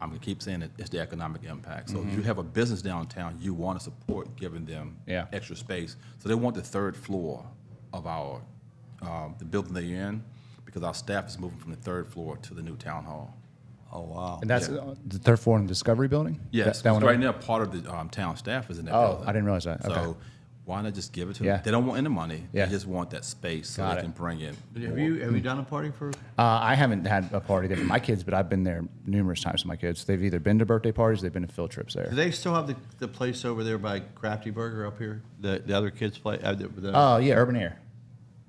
I'm gonna keep saying it, it's the economic impact. So Mm-hmm. if you have a business downtown, you want to support giving them Yeah. extra space. So they want the third floor of our, um, the building they're in, because our staff is moving from the third floor to the new town hall. Oh, wow. And that's uh, the third floor in Discovery Building? Yes, That- that 'cause one right over- now, part of the um, town staff is in that Oh, building. I didn't realize that. Okay. So why not just give it to them? Yeah. They don't want any money. Yeah. They just want that space so Got they it. can bring in. Have more. you, have you done a party for? Uh, I haven't had a party there for my kids, but I've been there numerous times with my kids. They've either been to birthday parties, they've been to field trips there. Do they still have the, the place over there by Crafty Burger up here? The, the other kids play? uh, the- the- Oh, yeah, Urban Air.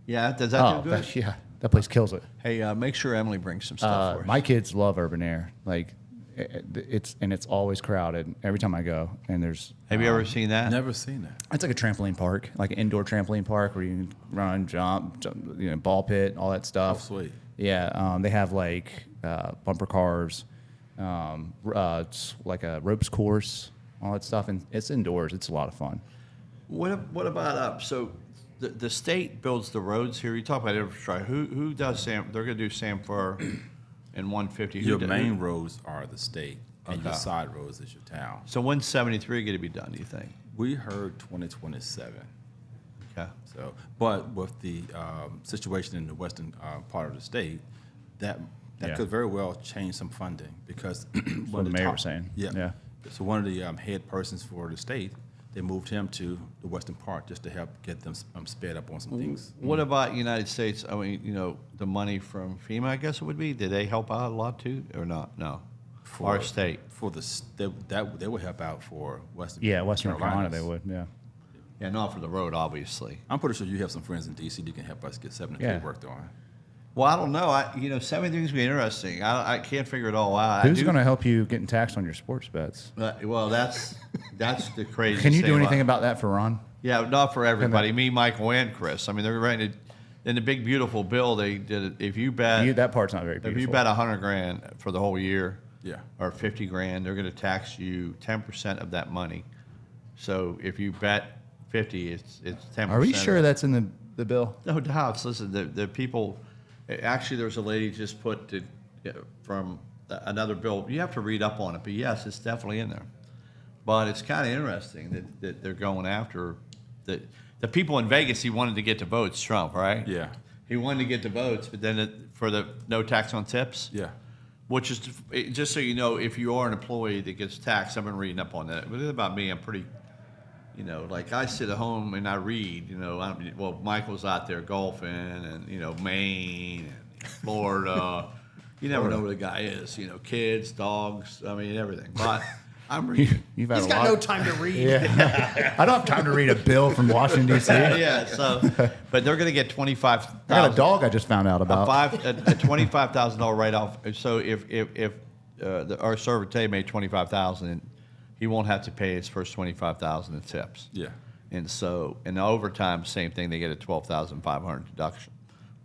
Yeah, does Oh, that do good? that- yeah, that place kills it. Hey, uh, make sure Emily brings some stuff Uh, for us. my kids love Urban Air. Like, it, it's and it's always crowded every time I go. And there's Have you ever seen that? Never seen that. it's like a trampoline park, like an indoor trampoline park where you can run, jump, jump you know, ball pit, all that stuff. Oh, sweet. Yeah, um, they have like uh, bumper cars, um, r- uh, s- like a ropes course, all that stuff, and it's indoors. It's a lot of fun. What, ab- what about up? So the, the state builds the roads here. You talk about infrastructure. Who, who does Sam? They're going to do Sam Fur and 150. Who Your do- main roads are the state, and your Okay. side roads is your town. So when's 73 going to be done, do you think? We heard 2027. Okay. So, but with the um, situation in the western uh, part of the state, that that Yeah. could very well change some funding because one what of the mayor top- was saying. Yeah. Yeah. So one of the um, head persons for the state, they moved him to the western part just to help get them s- um, sped up on some things. What about United States? I mean, you know, the money from FEMA, I guess it would be. Did they help out a lot too, or not? No, our state. for the s- they, that they would help out for Western Yeah, Western North Carolina, Carolinas. they would. Yeah. Yeah, not for the road, obviously. I'm pretty sure you have some friends in D.C. that can help us get 73 Yeah. worked on. Well, I don't know. I, you know, some of the things be interesting. I, I can't figure it all out. I Who's do- going to help you getting taxed on your sports bets? Uh, well, that's that's the crazy. Can you thing do anything About, about that for Ron? yeah, not for everybody. Me, Michael, and Chris. I mean, they're writing it in the big beautiful bill. They did it. If you bet, You, that part's not very beautiful. if you bet a hundred grand for the whole year, Yeah. or fifty grand, they're going to tax you ten percent of that money. So if you bet fifty, it's it's ten. Are we sure that's in the, the bill? No doubts. Listen, the, the people, actually, there's a lady just put to, from another bill. You have to read up on it, but yes, it's definitely in there. But it's kind of interesting that, that they're going after the, the people in Vegas. He wanted to get the votes, Trump, right? Yeah. He wanted to get the votes, but then it, for the no tax on tips. Yeah. Which is it- just so you know, if you are an employee that gets taxed, I've been reading up on that. But it's about me, I'm pretty, you know, like I sit at home and I read. You know, I'm, well, Michael's out there golfing, and you know, Maine and Florida. You never know what a guy is. You know, kids, dogs. I mean, everything. But I'm reading. You've had He's a got lot. no time to read. yeah. I don't have time to read a bill from Washington, D.C. I yeah. So, but they're going to get twenty five. got a dog I just found out about. a five a, a twenty five thousand dollar write off. So if if if uh, the, our server today made twenty five thousand, he won't have to pay his first twenty five thousand in tips. Yeah. And so in overtime, same thing. They get a twelve thousand five hundred deduction,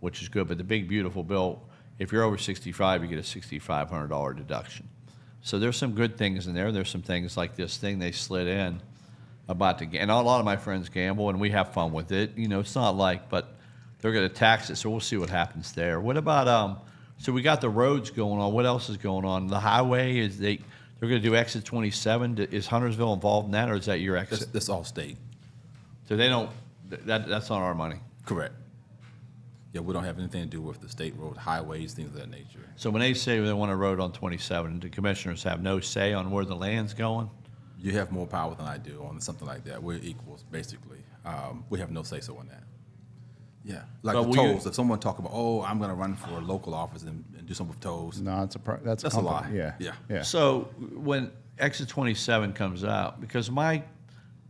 which is good. But the big beautiful bill, if you're over sixty five, you get a sixty five hundred dollar deduction. So there's some good things in there. There's some things like this thing they slid in about the and a lot of my friends gamble and we have fun with it. You know, it's not like, but they're going to tax it, so we'll see what happens there. What about um? So we got the roads going on. What else is going on? The highway is they they're going to do exit 27. Is Huntersville involved in that, or is that your exit? That's, that's all state. So they don't. th- That that's not our money. Correct. Yeah, we don't have anything to do with the state road, highways, things of that nature. So when they say they want a road on 27, the commissioners have no say on where the land's going. You have more power than I do on something like that. We're equals, basically. Um, we have no say so on that. Yeah, like But the will you- tolls. if someone talk about, oh, I'm going to run for a local office and, and do something with tolls, no, it's a pro- that's, That's a company. lie. Yeah. Yeah. Yeah. So when exit 27 comes out, because my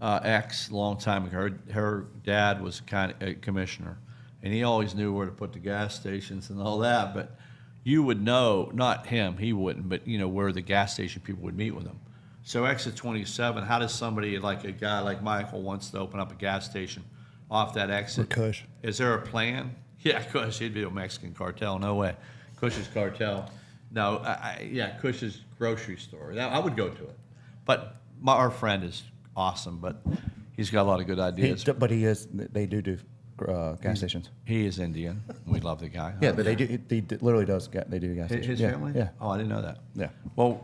uh, ex, long time ago, her, her dad was kind of a commissioner, and he always knew where to put the gas stations and all that. But you would know, not him, he wouldn't, but you know where the gas station people would meet with him. So exit 27, how does somebody like a guy like Michael wants to open up a gas station off that exit? Cush. Is there a plan? Yeah, Kush. He'd be a Mexican cartel. No way. Cush's cartel. No, I, I, yeah, Cush's grocery store. That, I would go to it. But my, our friend is awesome, but he's got a lot of good He, ideas. d- but he is. They do do uh, gas stations. He is Indian. We love the guy. Yeah, but they do. He, he d- literally does. Ga- they do gas His, stations. his yeah, family? Yeah. Oh, I didn't know that. Yeah. Well,